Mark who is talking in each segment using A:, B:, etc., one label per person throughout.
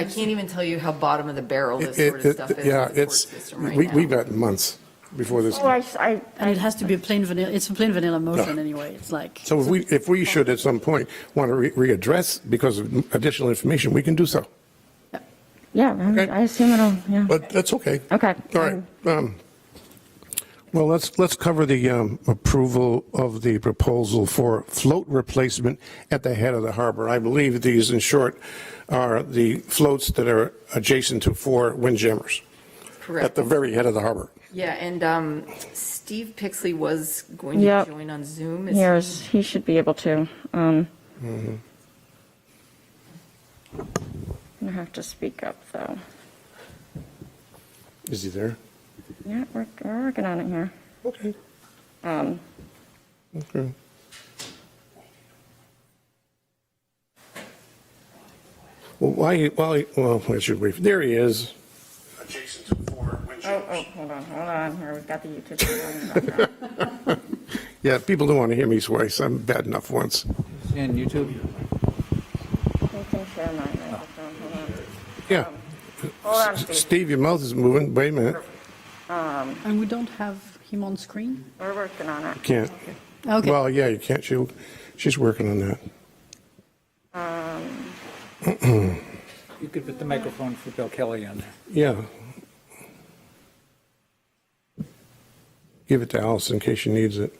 A: I can't even tell you how bottom of the barrel this
B: It-
A: sort of
B: it-
A: stuff is.
B: Yeah,
A: with the court
B: it's,
A: system right
B: we,
A: now.
B: we've gotten months before this.
C: Oh, I, I,
D: And it has to be a plain vanilla, it's a plain vanilla motion
B: No.
D: anyway, it's like,
B: So if we, if we should at some point want to re- readdress because of additional information, we can do so.
C: yeah, I-
B: Okay.
C: I assume it'll, yeah.
B: But that's okay.
C: Okay.
B: All right. Um, Well, let's, let's cover the um, approval of the proposal for float replacement at the head of the harbor. I believe these, in short, are the floats that are adjacent to four windjammers at
A: Correct.
B: the very head of the harbor.
A: Yeah, and um, Steve Pixley was going to
C: Yep.
A: join on Zoom. Is he-
C: Here's, he should be able to. Um,
B: Mm-hmm.
C: I have to speak up, though.
B: Is he there?
C: Yeah, we're, we're working on it here.
B: Okay.
C: Um,
B: Okay. Well, why, why, well, why should we, there he is. Adjacent to four
C: oh, oh, hold on, hold on, here, we've got the YouTube. channel in the background.
B: Yeah, people don't want to hear me swear, so I'm bad enough once.
E: And YouTube?
C: You can share my microphone, hold on.
B: Yeah.
C: Um, Hold on,
B: S-
C: Steve.
B: Steve, your mouth is moving, wait a minute.
D: and we don't have him on screen?
C: We're working on it.
B: Can't,
D: Okay,
B: well, yeah, you can't, she, she's working on that.
E: You could put the microphone for Bill Kelly on there.
B: Yeah. Give it to Alice in case she needs it.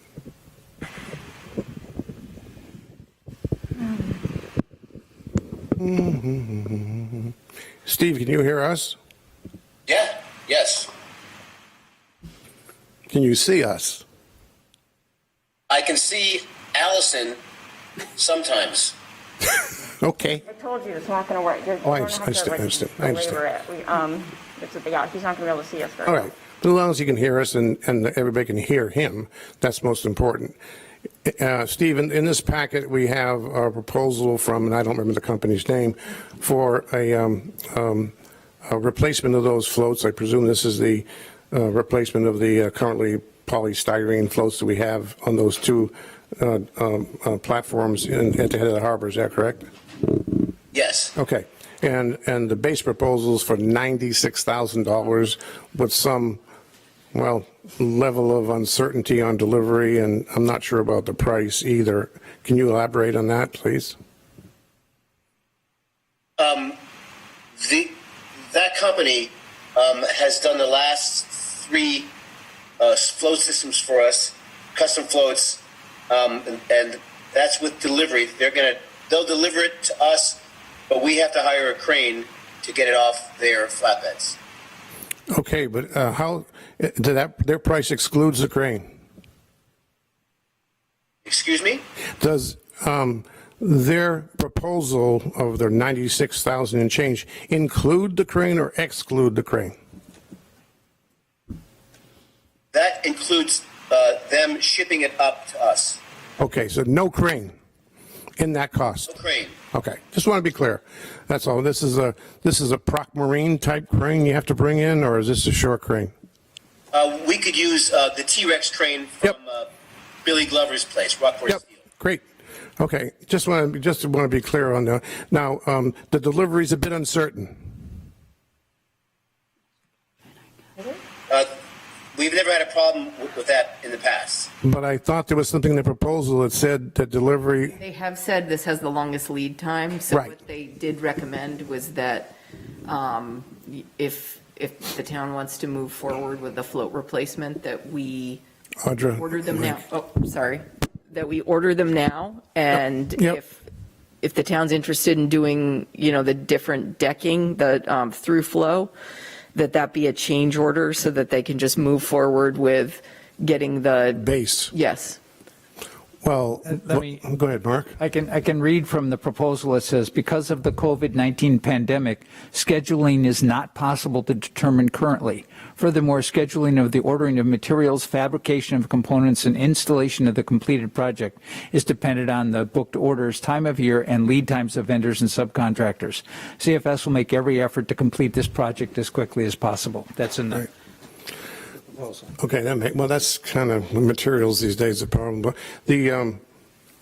B: Steve, can you hear us?
F: Yeah, yes.
B: Can you see us?
F: I can see Allison sometimes.
B: Okay.
C: I told you, it's not gonna work. You're-
B: Oh, I
C: we're gonna
B: understand,
C: have to,
B: I
C: like,
B: understand, I understand.
C: belabor it. We, um, it's, yeah, he's not gonna be able to see us. very
B: All
C: well.
B: right. But as long as you can hear us and, and everybody can hear him, that's most important. Uh, Steve, in, in this packet, we have a proposal from, and I don't remember the company's name, for a, um, um, a replacement of those floats. I presume this is the, uh, replacement of the uh, currently polystyrene floats that we have on those two, uh, um, uh, platforms in, at the head of the harbor. Is that correct?
F: Yes.
B: Okay, and, and the base proposal's for $96,000 with some, well, level of uncertainty on delivery, and I'm not sure about the price either. Can you elaborate on that, please?
F: The, that company um, has done the last three uh, float systems for us, custom floats, um, and, and that's with delivery. They're gonna they'll deliver it to us, but we have to hire a crane to get it off their flatbeds.
B: Okay, but uh, how, eh, did that, their price excludes the crane?
F: Excuse me.
B: Does um, their proposal of their 96,000 and change include the crane or exclude the crane?
F: That includes uh, them shipping it up to us.
B: Okay, so no crane in that cost?
F: Crane.
B: Okay, just want to be clear. That's all. This is a, this is a Proc Marine type crane you have to bring in, or is this a shore crane?
F: Uh, we could use uh, the T Rex crane from
B: Yep.
F: uh, Billy Glover's place, Rockport
B: Yep,
F: Steel.
B: great. Okay, just want to, just want to be clear on that. Now, um, the delivery's a bit uncertain.
F: Uh, we've never had a problem with, with that in the past.
B: But I thought there was something in the proposal that said that delivery,
A: They have said this has the longest lead time, so
B: Right.
A: what they did recommend was that um, y- if, if the town wants to move forward with the float replacement, that we
B: Audra.
A: order them now, oh, sorry, that we order them now, and
B: Yep.
A: if, if the town's interested in doing, you know, the different decking, the um, through flow, that that be a change order so that they can just move forward with getting the,
B: Base.
A: yes.
B: Well,
E: Uh, let me-
B: go ahead, Mark.
E: I can, I can read from the proposal. It says, because of the COVID-19 pandemic, scheduling is not possible to determine currently. Furthermore, scheduling of the ordering of materials, fabrication of components, and installation of the completed project is dependent on the booked orders, time of year, and lead times of vendors and subcontractors. CFS will make every effort to complete this project as quickly as possible. That's in the proposal.
B: Okay, that make, well, that's kind of materials these days, the problem, but the, um,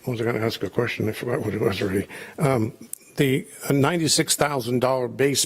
B: I was going to ask a question, I forgot what it was already. Um, the ninety-six thousand dollar base